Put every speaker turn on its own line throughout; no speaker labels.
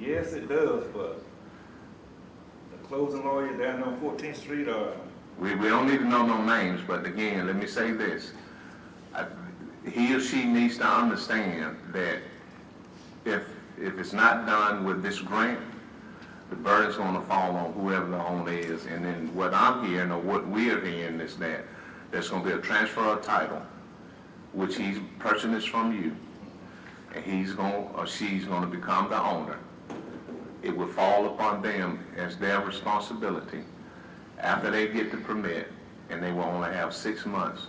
Yes, it does, but the closing lawyer down on Fourteenth Street, uh,
We, we don't need to know no names, but again, let me say this. I- He or she needs to understand that if, if it's not done with this grant, the burden's gonna fall on whoever the owner is. And then what I'm hearing or what we are hearing is that there's gonna be a transfer of title, which he's purchasing this from you. And he's gonna, or she's gonna become the owner. It would fall upon them as their responsibility after they get the permit, and they will only have six months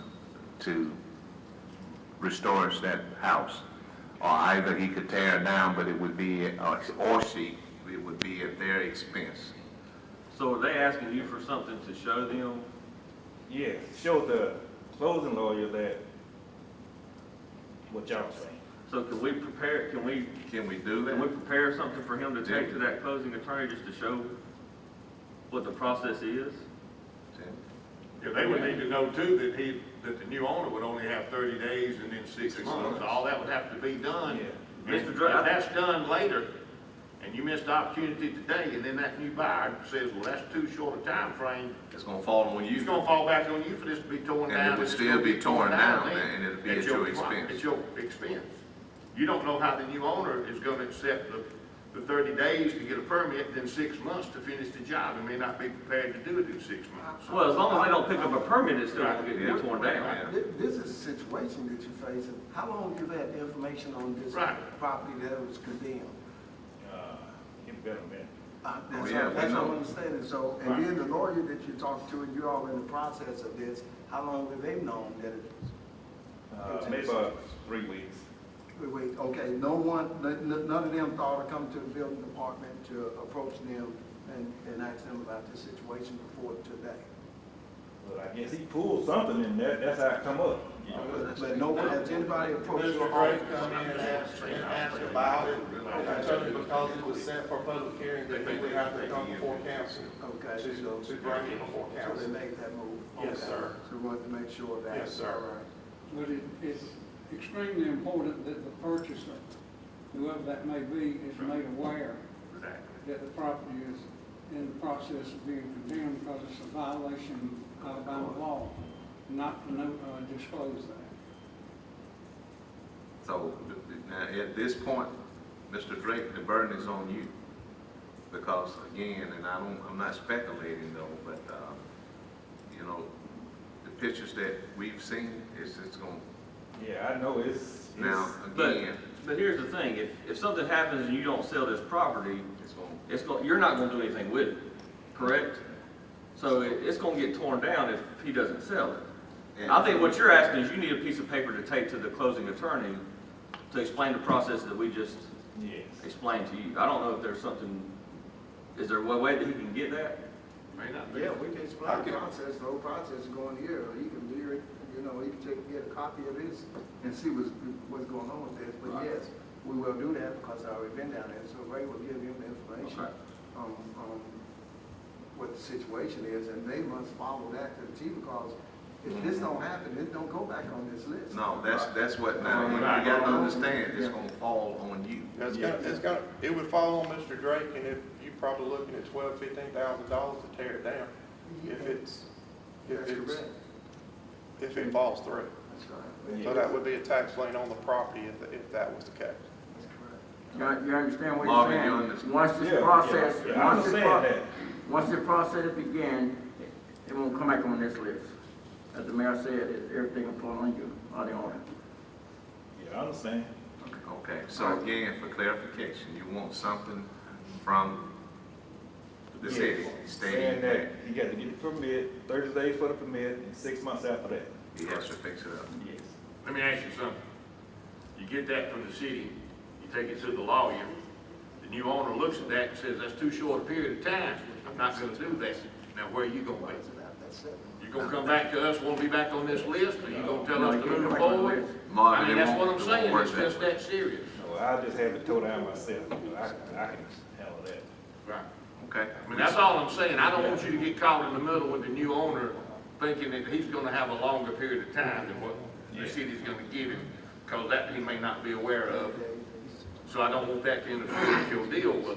to restore us that house. Or either he could tear it down, but it would be, or or she, it would be at their expense.
So are they asking you for something to show them?
yes, show the closing lawyer that what y'all saying.
So can we prepare, can we,
Can we do
can we
that?
prepare something for him to take to that closing attorney just to show what the process is?
Yeah, they would need to know too that he, that the new owner would only have thirty days and then six months. All that would have to be done.
Yeah.
Mr. Dre, if that's done later, and you missed the opportunity today, and then that new buyer says, well, that's too short a time frame."
It's gonna fall on
it's gonna fall back on you for this to be torn
And it
down.
would
it's
still
gonna
be torn down,
then.
and it'll be at your
pro-
expense.
At your expense. You don't know how the new owner is gonna accept the, the thirty days to get a permit, then six months to finish the job, and may not be prepared to do it in six months.
Well, as long as they don't pick up a permit, it's still gonna get get torn down.
Yeah.
This, this is a situation that you face, and how long you had information on this
Right.
property that was condemned?
Uh, it's been a minute.
Uh,
Oh,
That's,
yeah,
all-
we
that's all
know.
I'm saying, so, and then the lawyer that you talked to, and you're all in the process of this, how long have they known that it
Uh, maybe about three weeks.
Wait, wait, okay, no one, n- n- none of them thought to come to the building department to approach them and, and ask them about this situation before today?
But I guess he pulled something in there, that's how it come up.
Oh,
you know?
But but no one, has anybody approached
Mr.
your
Gray
office?
come in and ask, and ask about it, concerning because it was sent for public hearing, that they would have to come before council.
Okay,
To,
so-
to bring it before
So they
council.
made that move?
Yes,
Okay.
sir.
So we wanted to make sure of that?
Yes, sir.
All right.
But it, it's extremely important that the purchaser, whoever that may be, is made aware that the property is in the process of being condemned because it's a violation of Alabama law, not to know, uh, disclose that.
So, now, at this point, Mr. Drake, the burden is on you. Because again, and I don't, I'm not speculating though, but, um, you know, the pictures that we've seen, it's, it's gonna,
Yeah, I know it's,
now,
it's,
But,
again,
but here's the thing, if, if something happens and you don't sell this property,
it's gonna,
it's going, you're not gonna do anything with it, correct? So it, it's gonna get torn down if he doesn't sell it. I think what you're asking is you need a piece of paper to take to the closing attorney to explain the process that we just
yes.
explained to you. I don't know if there's something, is there a way that he can get that?
May not be.
Yeah, we can explain
Okay.
the process, the whole process is going here, or you can do it, you know, you can take, get a copy of this and see what's, what's going on with this, but
Right.
yes, we will do that because I already been down there, so Ray will give him the information
Okay.
on, on what the situation is, and they must follow that to the T because if this don't happen, it don't go back on this list.
No, that's, that's what, now, you
Right.
gotta understand, it's gonna fall on you.
That's gonna, that's gonna, it would fall on Mr. Drake, and if, you probably looking at twelve, fifteen thousand dollars to tear it down, if it's, if
That's
it's,
correct,
if it falls through.
that's right,
So that would be a tax lien on the property if, if that was the case.
that's correct.
You you understand what
Marvin, you
you're
understand?
saying? Once
Yeah, yeah,
this process,
yeah, I
once this
understand
pro-
that.
once the process begins, it won't come back on this list. As the mayor said, it- everything will fall on you, on the owner.
Yeah, I understand.
Okay, so again, for clarification, you want something from the city
Yes.
stating
Saying that
that
he got to get the permit, thirty days for the permit, and six months after that.
he has to fix it up.
Yes.
Let me ask you something. You get that from the city, you take it to the lawyer, the new owner looks at that and says, that's too short a period of time, I'm not gonna do that. Now, where are you gonna be?
So that- that's it.
You gonna come back to us, wanna be back on this list, or you gonna tell
No,
us
you
to
can't
move
come back on the
forward?
list.
Marvin,
I mean,
it
that's what
won't-
I'm
it won't
saying,
work
it's
that
just
way.
that serious.
No, I just have it towed down myself, you know, I, I can handle that.
Right.
Okay.
I mean, that's all I'm saying, I don't want you to get caught in the middle with the new owner thinking that he's gonna have a longer period of time than what the city's gonna give him, cause that he may not be aware of. So I don't want that to interfere with your deal with